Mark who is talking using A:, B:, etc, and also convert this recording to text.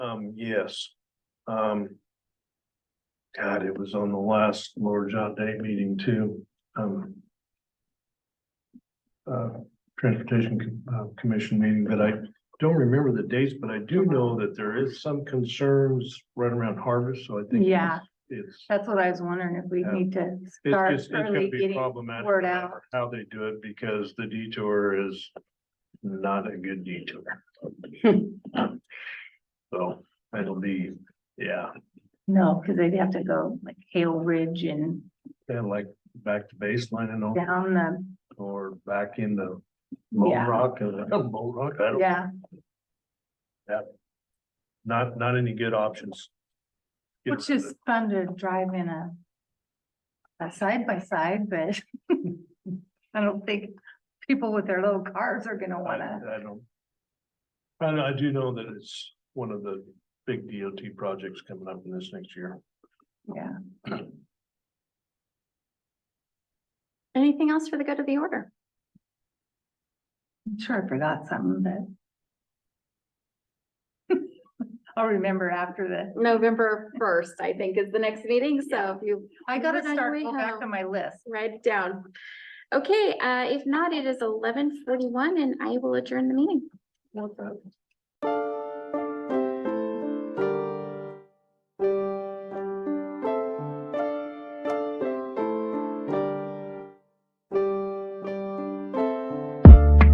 A: Um, yes. Um. God, it was on the last Lord John Day meeting too, um. Uh, Transportation Co- uh, Commission meeting, but I don't remember the dates, but I do know that there is some concerns right around harvest, so I think.
B: Yeah.
A: It's,
B: That's what I was wondering if we
A: Yeah.
B: need to
A: it's
B: start
A: just, it's
B: early
A: gonna be
B: getting,
A: problematic.
B: word
A: no
B: out.
A: matter How they do it, because the detour is not a good detour. So it'll be, yeah.
B: no, because they'd have to go like Hale Ridge and
A: And like back to baseline and all,
B: down the,
A: or back into Mo
B: Yeah.
A: Rock and uh, Mo Rock, I don't,
B: yeah,
A: not, not any good options. Get
B: which
A: rid of
B: is
A: it.
B: fun to drive in a a side by side, but I don't think people with their little cars are gonna
A: I
B: wanna,
A: I don't. I know, I do know that it's one of the big DOT projects coming up in this next year.
B: yeah.
C: Anything else for the good of the order?
B: I'm sure I forgot something, but I'll remember after the,
C: November first, I think, is the next meeting, so if you
B: I gotta
C: Listen, on your
B: start,
C: way
B: go back to
C: home.
B: my list.
C: write it down. Okay, uh, if not, it is eleven forty-one and I will adjourn the meeting.